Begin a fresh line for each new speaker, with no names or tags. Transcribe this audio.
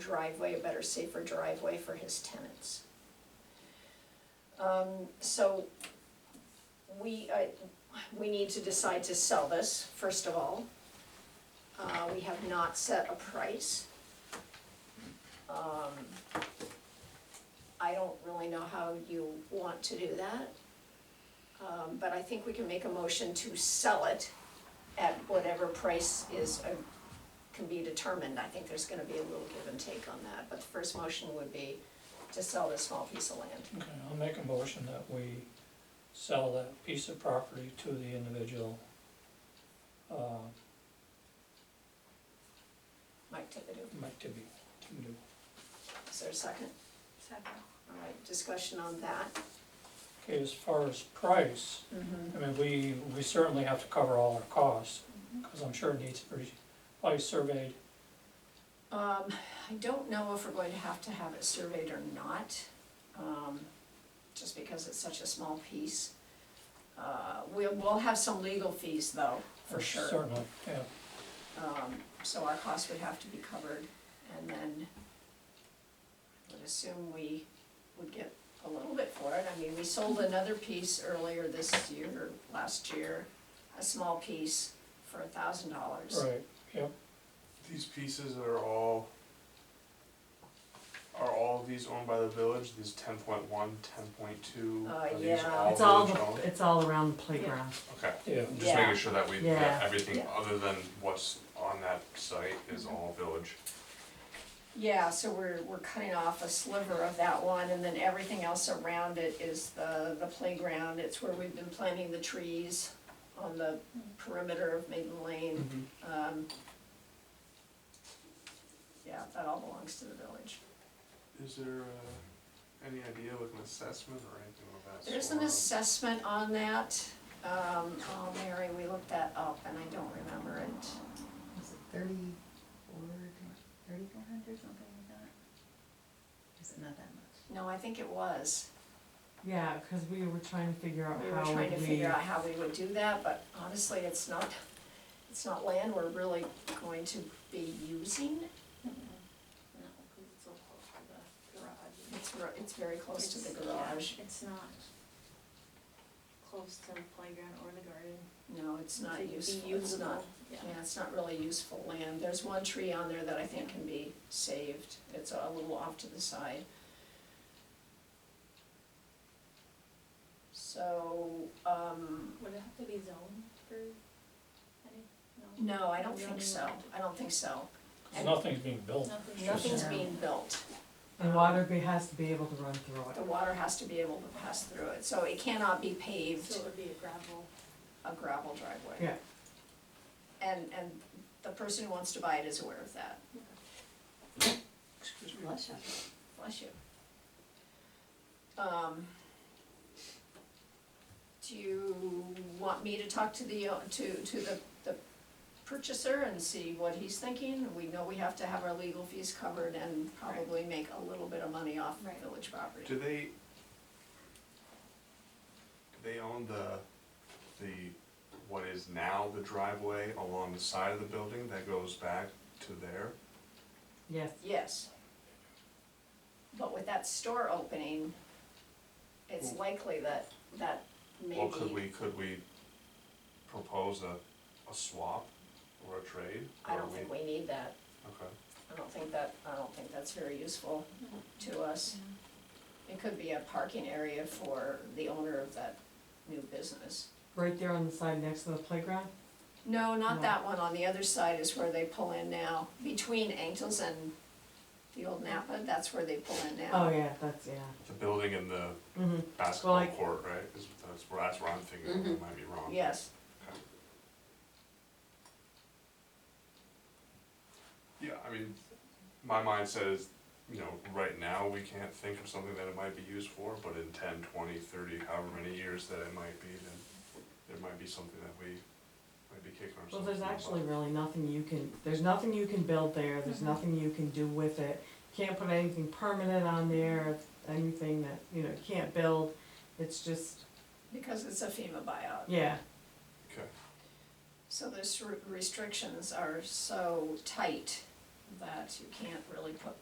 driveway, a better safer driveway for his tenants. Um, so we, I, we need to decide to sell this, first of all. Uh, we have not set a price. Um, I don't really know how you want to do that. Um, but I think we can make a motion to sell it at whatever price is uh, can be determined, I think there's gonna be a little give and take on that, but the first motion would be to sell this small piece of land.
Okay, I'll make a motion that we sell that piece of property to the individual. uh,
Mike Tivido,
Mike Tibby, can do.
is there a second?
Second.
All right, discussion on that.
Okay, as far as price,
Mm-hmm.
I mean, we, we certainly have to cover all our costs,
Mm-hmm.
because I'm sure it needs to be probably surveyed.
Um, I don't know if we're going to have to have it surveyed or not, um, just because it's such a small piece. Uh, we'll, we'll have some legal fees though, for sure.
Certainly, yeah.
Um, so our costs would have to be covered, and then I would assume we would get a little bit for it. I mean, we sold another piece earlier this year, or last year, a small piece for a thousand dollars.
Right, yep,
These pieces are all, are all of these owned by the village, these ten point one, ten point two?
Uh, yeah.
It's all, the- it's all around the playground.
Okay,
yeah.
I'm
Yeah.
just making sure that we,
Yeah.
that everything
Yeah. Mm-hmm.
other than what's on that site is all village.
Yeah, so we're, we're cutting off a sliver of that one, and then everything else around it is the, the playground. It's where we've been planting the trees on the perimeter of Maiden Lane. Um, Yeah, that all belongs to the village.
Is there, uh, any idea like an assessment or anything of that sort?
There's an assessment on that, um, oh, Mary, we looked that up and I don't remember it.
Was it thirty-four, thirty-four hundred, something like that? Is it not that much?
No, I think it was.
Yeah, because we were trying to figure out
We were
how
trying to
would we,
figure out how we would do that, but honestly, it's not, it's not land we're really going to be using.
No, because it's so close to the garage.
It's, ver- it's very close to the
It's-
garage.
It's not close to the playground or the garden.
No, it's not
It'd be
useful, it's not,
usable.
yeah,
Yeah.
it's not really useful land. There's one tree on there that I think can be saved. It's a little off to the side. So, um,
Would it have to be zoned for any, no?
no, I don't think so. I don't think so.
'Cause nothing's being built.
Nothing.
Nothing's
Yeah.
being built.
and water be, has to be able to run through
The
it.
water has to be able to pass through it, so it cannot be paved
So it would be a gravel.
a gravel driveway.
Yeah.
And, and the person who wants to buy it is aware of that.
Excuse me.
Bless you. Bless you. Um, do you want me to talk to the, uh, to, to the, the purchaser and see what he's thinking? We know we have to have our legal fees covered and probably make a little bit of money off
Right.
village property.
Do they, they own the, the, what is now the driveway along the side of the building that goes back to there?
Yes,
Yes. But with that store opening, it's likely that, that
Well, could
maybe,
we, could we propose a, a swap or a trade?
I
Or
don't
we-
think we need that.
Okay,
I don't think that, I don't think that's very useful to us. It could be a parking area for the owner of that new business.
right there on the side next to the playground.
No, not
No.
that one, on the other side is where they pull in now, between Angels and the old Napa, that's where they pull in now.
Oh, yeah, that's, yeah.
the building and the
Mm-hmm.
basketball
Like-
court, right, is, that's, where- that's where I'm thinking,
Mm-hmm.
I might be wrong.
Yes.
Yeah, I mean, my mind says, you know, right now, we can't think of something that it might be used for, but in ten, twenty, thirty, however many years that it might be, then there might be something that we might be kicking
Well,
ourselves.
there's
in the
actually
butt.
really nothing you can, there's nothing you can build there, there's
Mm-hmm.
Mhm.
nothing you can do with it. Can't put anything permanent on there, anything that, you know, you can't build. It's just,
Because it's a FEMA buyout.
yeah,
Okay,
So those r- restrictions are so tight that you can't really put